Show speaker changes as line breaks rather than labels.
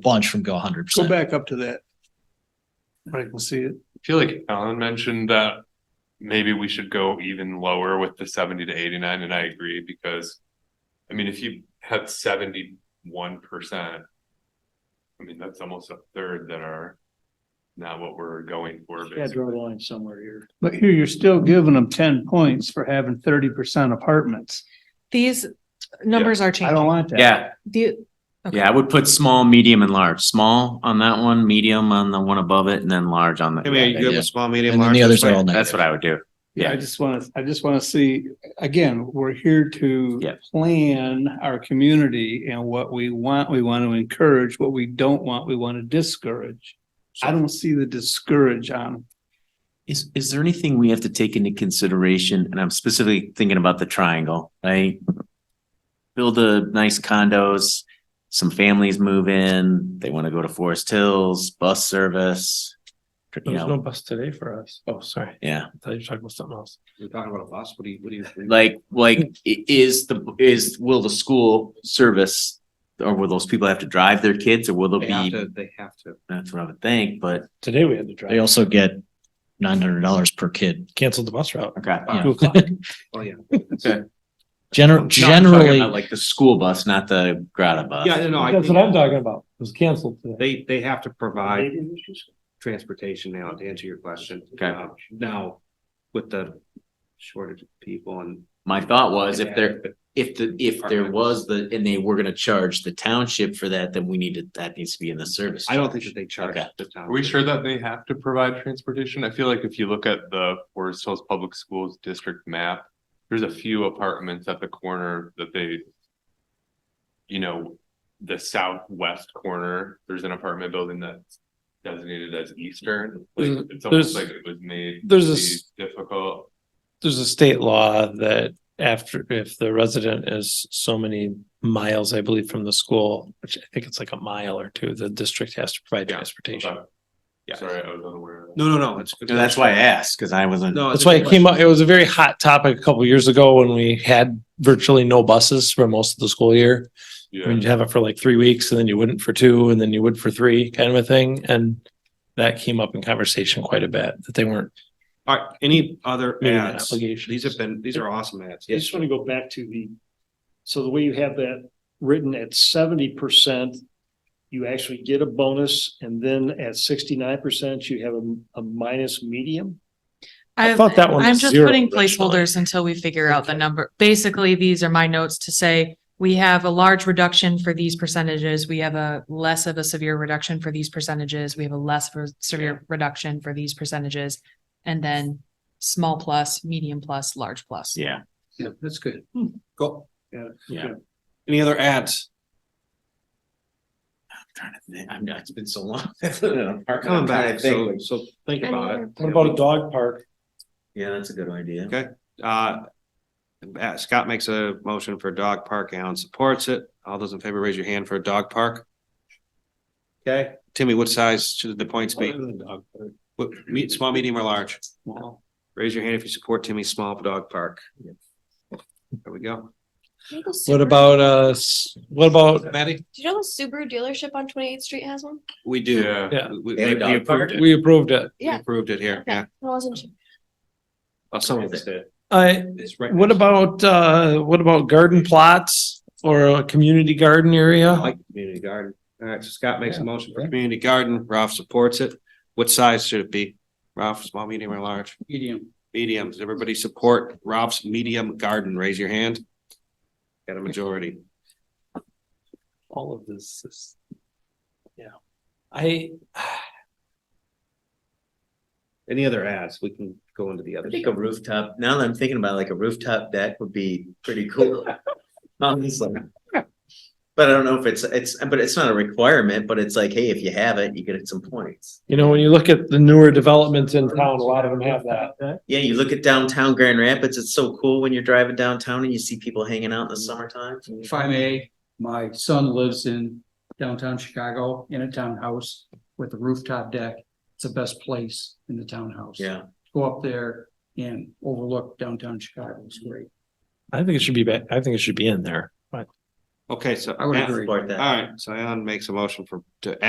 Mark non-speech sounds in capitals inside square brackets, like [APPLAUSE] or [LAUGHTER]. bunch from go hundred
Go
percent.
back up to that. I can see it.
I feel like Alan mentioned that maybe we should go even lower with the seventy to eighty-nine, and I agree because. I mean, if you had seventy-one percent. I mean, that's almost a third that are not what we're going for.
Yeah,
basically.
draw a line somewhere here.
But here you're still giving them ten points for having thirty percent apartments.
These numbers are
I don't
changing.
want that.
Yeah,
The, okay.
yeah, I would put small, medium and large. Small on that one, medium on the one above it, and then large on the.
I mean,
yeah,
you have
yeah.
a small, medium,
And then
large.
the others are all
That's
negative.
what I would do.
Yeah, I
Yeah.
just want to, I just want to see, again, we're here to
Yeah.
plan our community and what we want, we want to encourage, what we don't want, we want to discourage. I don't see the discourage on 'em.
Is, is there anything we have to take into consideration? And I'm specifically thinking about the triangle, right? Build a nice condos, some families move in, they want to go to Forest Hills, bus service. You
There's no
know,
bus today for us. Oh, sorry.
yeah,
I thought you were talking about something else.
You're talking about a bus, what do you, what do you?
like, like i- is the, is, will the school service? Or will those people have to drive their kids or will there
They have
be,
to, they have to.
that's what I would think, but.
Today we had to
They
drive,
also get nine hundred dollars per kid.
canceled the bus route.
Okay.
Uh,
Yeah.
Two o'clock.
Oh, yeah.
Gener- generally,
Like the school bus, not the Grata bus.
Yeah, no, I
Uh, That's what I'm
think
talking about. It was canceled today.
they, they have to provide transportation now to answer your question.
Okay.
Uh, Now, with the shortage of people and.
My thought was if there, if the, if there was the, and they were gonna charge the township for that, then we need to, that needs to be in the service.
I don't think that they charge
Okay.
the town.
Are we sure that they have to provide transportation? I feel like if you look at the Forest Hills Public Schools District map, there's a few apartments at the corner that they. You know, the southwest corner, there's an apartment building that's designated as eastern. Like, It's almost
There's-
like it was made. to
there's a
be
s-
Difficult.
There's a state law that after, if the resident is so many miles, I believe, from the school, which I think it's like a mile or two, the district has to provide
Yeah,
transportation.
Okay. Sorry, I was unaware. of that.
No, no, no, it's.
And That's why I asked, cause I wasn't.
No,
That's why it came up, it was a very hot topic a couple years ago when we had virtually no buses for most of the school year. I mean,
Yeah,
you'd have it for like three weeks and then you wouldn't for two and then you would for three kind of a thing. And that came up in conversation quite a bit that they weren't
All right, any other
meeting that
ads?
obligation.
These have been, these are awesome ads.
I just want to go back to the, so the way you have that written at seventy percent, you actually get a bonus, and then at sixty-nine percent, you have a, a minus medium?
I
I've-
thought that one
I'm
was
just
zero
putting
originally.
placeholders until we figure out the number. Basically, these are my notes to say, we have a large reduction for these percentages. We have a less of a severe reduction for these percentages. We have a less for severe reduction for these percentages. And then small plus, medium plus, large plus.
Yeah,
Yeah, that's good. Cool.
yeah.
Any other ads?
Trying to think, I'm, it's been so
[LAUGHS]
long. Coming
Coming back, so, so think about it.
What about a dog park?
Yeah, that's a good idea.
Okay. Uh, uh, Scott makes a motion for dog park. Alan supports it. All those in favor, raise your hand for a dog park. Okay, Timmy, what size should the points be? What, me, small, medium or large? Raise your hand if you support Timmy's small dog park. There we go.
What about, uh, s- what about,
Maddie?
Do you know the Subaru dealership on 28th Street has one?
We do.
Yeah.
Yeah.
We,
They have
we
a
we
dog park?
approved it.
we approved it.
We approved it here. Yeah.
I wasn't sure.
Oh, someone did.
I,
It's right
what
next-
about, uh, what about garden plots or a community garden
I
area?
like community garden. All right, so Scott makes a motion for
Yeah.
community garden. Ralph supports it. What size should it be? Ralph, small, medium or large?
Medium.
Medium. Does everybody support Ralph's medium garden? Raise your hand. Got a majority.
All of this is, yeah. I,
Any other ads? We can go into the other.
I think a rooftop, now that I'm thinking about it, like a rooftop deck would be pretty cool. [LAUGHS] Honestly. But I don't know if it's, it's, but it's not a requirement, but it's like, hey, if you have it, you get some points.
you know, when you look at the newer developments in town, a lot of them have that.
Yeah, you look at downtown Grand Rapids, it's so cool when you're driving downtown and you see people hanging out in
Mm.
the summertime.
if I may, my son lives in downtown Chicago in a townhouse with a rooftop deck. It's the best place in the townhouse.
Yeah,
Go up there and overlook downtown Chicago. It's great.
I think it should be, ba- I think it should be in there, but
Okay, so.
I would agree.
All right, so Alan makes a motion for, to